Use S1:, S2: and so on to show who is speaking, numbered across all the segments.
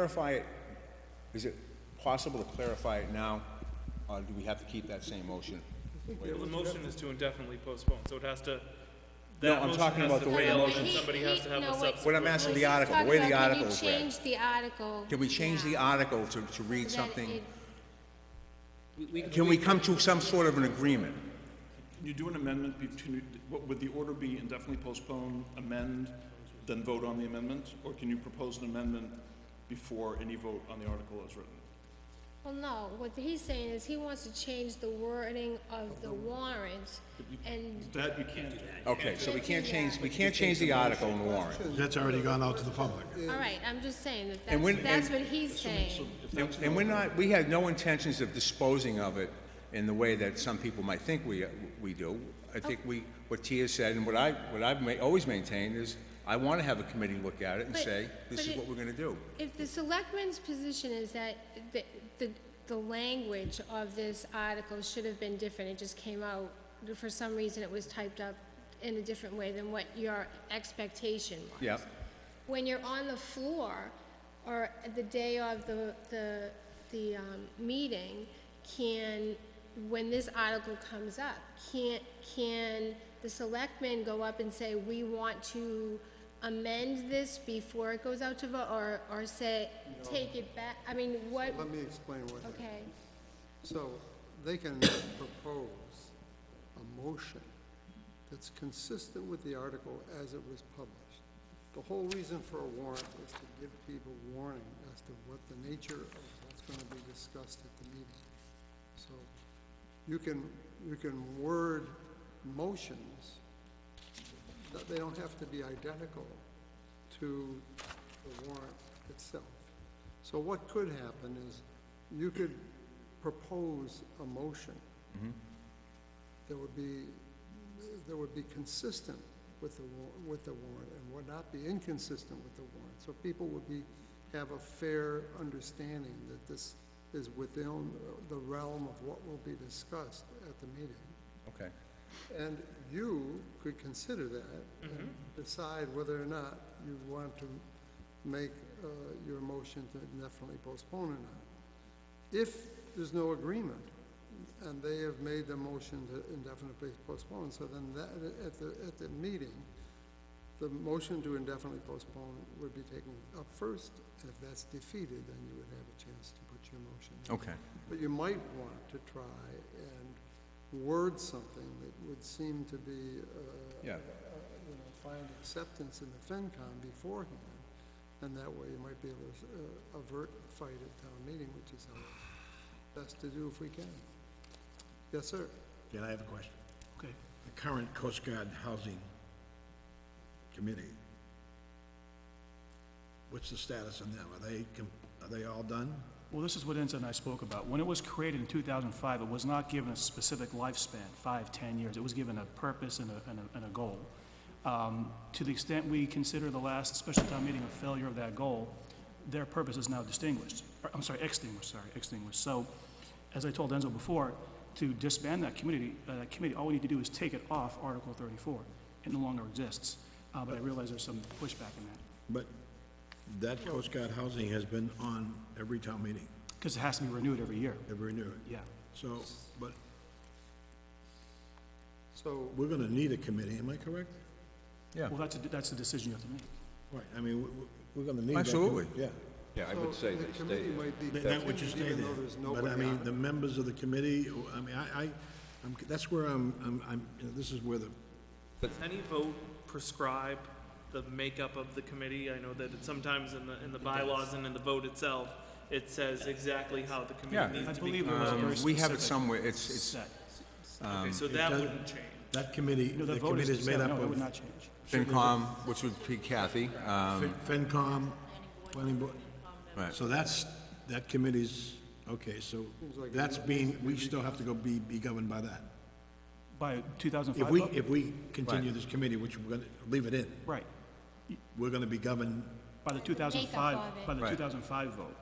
S1: Clarify it, is it possible to clarify it now, or do we have to keep that same motion?
S2: The motion is to indefinitely postpone, so it has to,
S1: No,
S2: that
S1: I'm
S2: motion
S1: talking
S2: has
S1: about
S2: to
S1: the way the
S2: fail, and
S1: motion-
S2: somebody
S3: He-
S2: has
S3: he-
S2: to have
S3: no,
S2: a
S3: wait.
S1: What
S2: subsequent.
S1: I'm asking the
S3: He's
S1: article, the
S3: talking
S1: way the
S3: about,
S1: article
S3: Can you
S1: is read.
S3: change the article?
S1: Can we change the
S3: now?
S1: article to, to read
S3: So that
S1: something?
S3: it-
S1: Can we come to some sort of an agreement?
S4: Can you do an amendment between, what would the order be indefinitely postpone, amend, then vote on the amendment? Or can you propose an amendment before any vote on the article is written?
S3: Well, no, what he's saying is he wants to change the wording of the warrant and,
S4: That you can't do.
S1: Okay, so we can't
S3: Yeah.
S1: change, we can't change the article in the warrant.
S5: That's already gone out to the public.
S3: all right, I'm just saying that
S1: And when-
S3: that's, that's
S1: and-
S3: what he's saying.
S1: And- And we're not, we had no intentions of disposing of it in the way that some people might think we, we do. I think
S3: Oh.
S1: we, what Tia said, and what I, what I've ma- always maintained is, I want to have a committee look at it and
S3: But-
S1: say, this
S3: but
S1: is
S3: it-
S1: what we're going to do.
S3: If the selectmen's position is that the, the, the language of this article should have been different, it just came out, for some reason it was typed up in a different way than what your expectation was.
S1: Yeah.
S3: When you're on the floor, or the day of the, the, the, um, meeting, can, when this article comes up, can, can the selectmen go up and say, we want to amend this before it goes out to vote, or, or say, take it back, I mean, what,
S6: Let me explain what happened.
S3: okay,
S6: So they can propose a motion that's consistent with the article as it was published. The whole reason for a warrant is to give people warning as to what the nature of what's going to be discussed at the meeting. So you can, you can word motions, that they don't have to be identical to the warrant itself. So what could happen is you could propose a motion that would be, that would be consistent with the, wa- with the warrant and would not be inconsistent with the warrant. So people would be, have a fair understanding that this is within the realm of what will be discussed at the meeting.
S1: Okay.
S6: And you could consider that and decide whether or not you want to make uh, your motion to indefinitely postpone or not. If there's no agreement, and they have made the motion to indefinitely postpone, so then that, at the, at the meeting, the motion to indefinitely postpone would be taken up first. If that's defeated, then you would have a chance to put your motion. in.
S1: Okay.
S6: But you might want to try and word something that would seem to be, uh,
S1: Yeah.
S6: you know, find acceptance in the FinCom beforehand. And that way you might be able to uh, avert a fight at town meeting, which is our best to do if we can. Yes, sir.
S5: Yeah, I have a question. Okay. The current Coast Guard Housing Committee, what's the status on them? Are they, com- are they all done?
S7: Well, this is what Enzo and I spoke about. When it was created in 2005, it was not given a specific lifespan, five, 10 years. It was given a purpose and a, and a, and a goal. Um, To the extent we consider the last special town meeting a failure of that goal, their purpose is now distinguished, or, I'm sorry, extinguished, sorry, extinguished. So, as I told Enzo before, to disband that community, uh, that committee, all we need to do is take it off Article 34. It no longer exists. Uh, But I realize there's some pushback in that,
S5: But that Coast Guard Housing has been on every town meeting,
S7: because it has to be renewed every year.
S5: every renewal.
S7: Yeah.
S5: So, but
S6: So,
S5: we're gonna need a committee, am I correct?
S1: Yeah.
S7: Well, that's, a- that's the decision you have to make.
S5: Right, I mean, we- we- we're gonna need that. commi-
S1: Absolutely.
S5: Yeah.
S8: Yeah, I
S6: so
S8: would say
S6: the
S8: they stay
S6: committee
S8: there.
S6: might be
S5: That- That would just
S6: contingent,
S5: stay
S6: even
S5: there.
S6: though there's
S5: But I
S6: nobody on
S5: mean,
S6: it.
S5: the members of the committee, I mean, I, I, I'm- that's where I'm, I'm- I'm, you know, this is where the
S2: Does any vote prescribe the makeup of the committee? I know that it's sometimes in the, in the bylaws and in the vote itself, it says exactly how the
S1: Yeah.
S2: committee
S7: I
S2: needs to be.
S7: believe it was a very
S1: Um, we have it
S7: specific
S1: somewhere, it's, it's
S7: set.
S2: Okay, so that
S5: does-
S2: wouldn't change.
S5: That committee,
S7: No,
S5: the
S7: the vote
S5: committee
S7: is,
S5: is made
S7: yeah,
S5: up
S7: no, it would not
S5: of
S7: change.
S1: FinCom, which would be Kathy, um,
S5: Fin- FinCom, planning board.
S1: Right.
S5: So that's, that committee's, okay, so that's being, we still have to go be, be governed by that.
S7: By
S5: If we,
S7: 2005,
S5: if we continue this committee, which we're gonna, leave it in,
S7: right,
S5: we're gonna be governed,
S7: by the 2005,
S3: of
S7: by
S1: Right.
S7: the 2005 vote.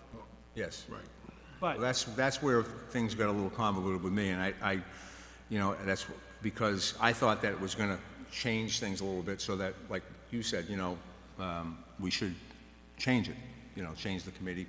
S1: yes.
S5: right.
S1: Well,
S7: But,
S1: that's, that's where things got a little convoluted with me, and I, I, you know, that's because I thought that it was gonna change things a little bit, so that, like you said, you know, um, we should change it, you know, change the committee